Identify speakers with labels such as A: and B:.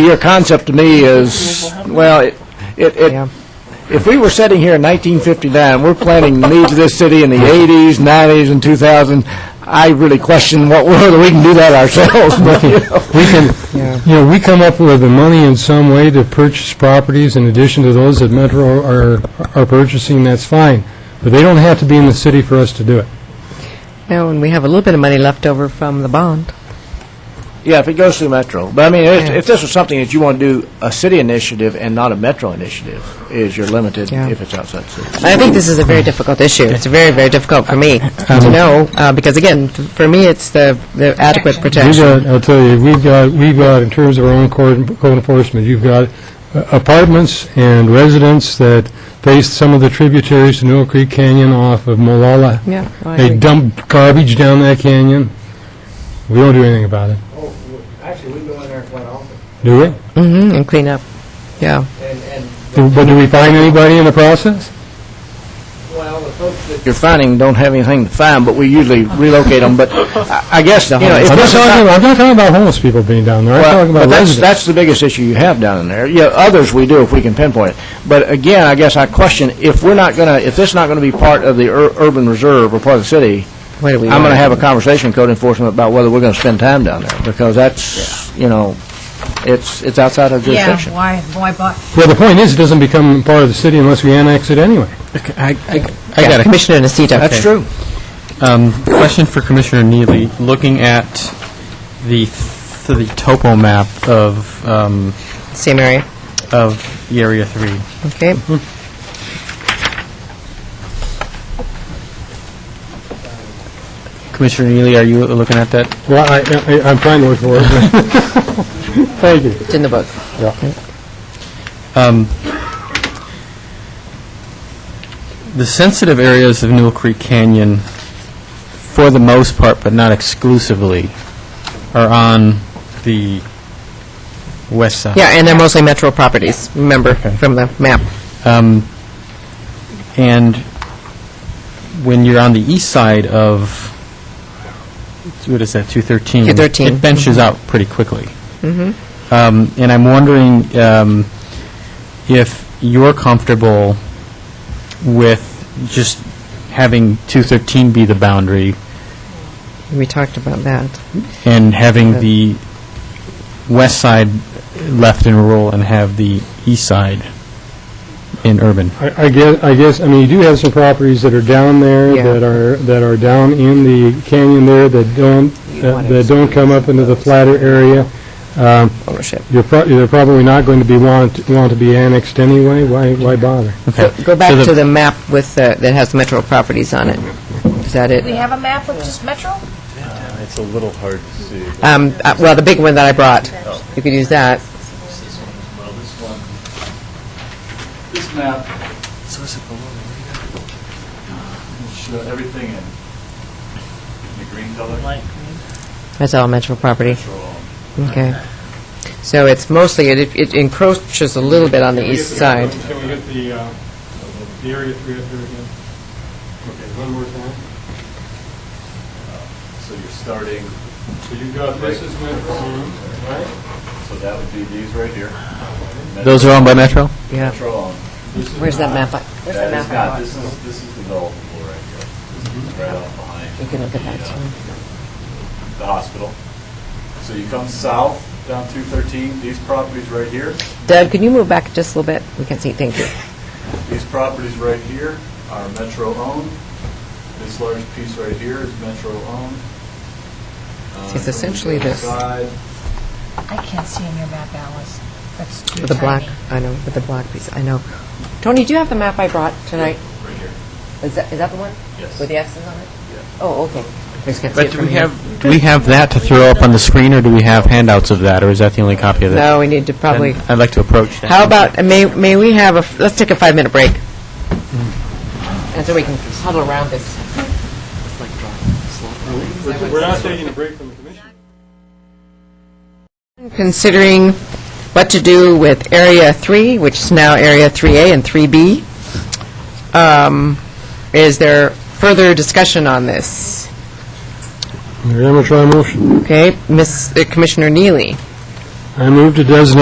A: Your concept to me is, well, it, it, it- if we were sitting here in 1959, we're planning the needs of this city in the 80s, 90s, and 2000, I really question what, whether we can do that ourselves, but, you know.
B: We can, you know, we come up with the money in some way to purchase properties in addition to those that Metro are, are purchasing, that's fine. But they don't have to be in the city for us to do it.
C: No, and we have a little bit of money left over from the bond.
A: Yeah, if it goes through Metro. But I mean, if,
C: Yeah.
A: if this was something that you want to do, a city initiative and not a Metro initiative, is you're limited
C: Yeah.
A: if it's outside city.
C: I think this is a very difficult issue. It's very, very difficult for me to
D: Um,
C: know, uh, because again, f- for me, it's the the adequate
B: We've
C: protection.
B: got, I'll tell you, we've got, we've got, in terms of our own code code enforcement, you've got apartments and residents that face some of the tributaries to Newell Creek Canyon off of Malala.
C: Yeah, well, I
B: They
C: agree.
B: dump garbage down that canyon. We don't do anything about it,
E: Oh, w- actually, we go in there quite often,
B: do we?
C: Mhm, And clean up, yeah.
E: and, and,
B: Do- But do we find anybody in the process?
E: well, the folks that
A: You're finding don't have anything to find, but we usually relocate them, but I I guess, you know, if
B: I'm not,
A: this is
B: talking
A: not-
B: about, I'm not talking about homeless people being down there. I'm
A: Well,
B: talking
A: but
B: about
A: that's,
B: residents.
A: that's the biggest issue you have down in there. Yeah, others we do if we can pinpoint it. But again, I guess I question, if we're not going to, if this is not going to be part of the ur- urban reserve or part of the city,
C: What do we
A: I'm going to
C: want?
A: have a conversation with code enforcement about whether we're going to spend time down there, because that's, you know, it's, it's outside our
F: Yeah,
A: jurisdiction.
F: why, why buy?
B: Well, the point is, it doesn't become part of the city unless we annex it anyway.
D: I got
C: Yeah,
D: a
C: Commissioner Nocita.
A: That's true.
D: um, question for Commissioner Neely. Looking at the th- the topo map of um,
C: Same area,
D: of the Area Three,
C: okay.
D: Commissioner Neely, are you looking at that?
B: Well, I, I, I'm trying to look for it. Thank you.
C: It's in the book.
D: Um, the sensitive areas of Newell Creek Canyon, for the most part, but not exclusively, are on the west side.
C: Yeah, and they're mostly metro properties, remember,
D: Okay.
C: from the map.
D: Um, And when you're on the east side of, what is that, 213?
C: 213.
D: It benches out pretty quickly. Um, And I'm wondering um, if you're comfortable with just having 213 be the boundary
C: We talked about that.
D: and having
C: Yeah.
D: the west side left in rural and have the east side in urban?
B: I, I guess, I guess, I mean, you do have some properties that are down there,
C: Yeah.
B: that are, that are down in the canyon there, that don't, that that don't come up into the flatter area. Um,
C: Ownership.
B: You're pro, they're probably not going to be, want, want to be annexed anyway. Why, why bother?
D: Okay.
C: Go
D: So
C: back
D: the-
C: to the map with, the- that has metro properties on it. Is that it?
F: We have a map of just Metro?
G: It's a little hard to see.
C: Um, uh, Well, the big one that I brought,
G: Oh.
C: you could use that.
G: This is one as well, this one. This map. So is it below the Will uh, show everything in, in the green color. Light
C: That's all metro property.
G: green.
C: Okay. So it's mostly, it it encroaches a little bit on the east side.
B: Can we get the, uh, the area three up here again? Okay, one more time.
G: Uh, So you're starting,
B: So you've got, this is Metro Home, right?
G: so that would be these right here.
D: Those are owned by Metro?
C: Yeah.
G: Metro on.
C: Where's that map? Where's the
G: That
C: map?
G: is not, this is, this is developable right here. This
B: Mm-hmm.
G: is right off behind.
C: You can look at that,
G: the, uh,
C: too.
G: The hospital. So you come south down 213, these properties right here.
C: Doug, can you move back just a little bit? We can see, thank you.
G: These properties right here are Metro-owned. This large piece right here is Metro-owned. Uh,
C: It's essentially
G: from the
C: this.
G: side,
F: I can't see in your map, Alice. That's too
C: With the black,
F: tiny.
C: I know, with the black piece, I know. Tony, do you have the map I brought tonight?
G: Right here,
C: Is that, is that the one?
G: yes.
C: With the X's on it?
G: Yes.
C: Oh, okay. I just can't see
D: But
C: it
D: do
C: from
D: we
C: here.
D: have, do we have that to throw up on the screen, or do we have handouts of that, or is that the only copy of that?
C: No, we need to probably,
D: Then I'd like to approach that.
C: how about, uh, may, may we have a, f- let's take a five-minute break. Mm-hmm. And so we can huddle around this.
B: We're not taking a break from the commission.
C: considering what to do with Area 3, which is now Area 3A and 3B. Um, Is there further discussion on this?
B: Mayor, I'm going to try a motion.
C: Okay, Ms. uh, Commissioner Neely?
B: I move to designate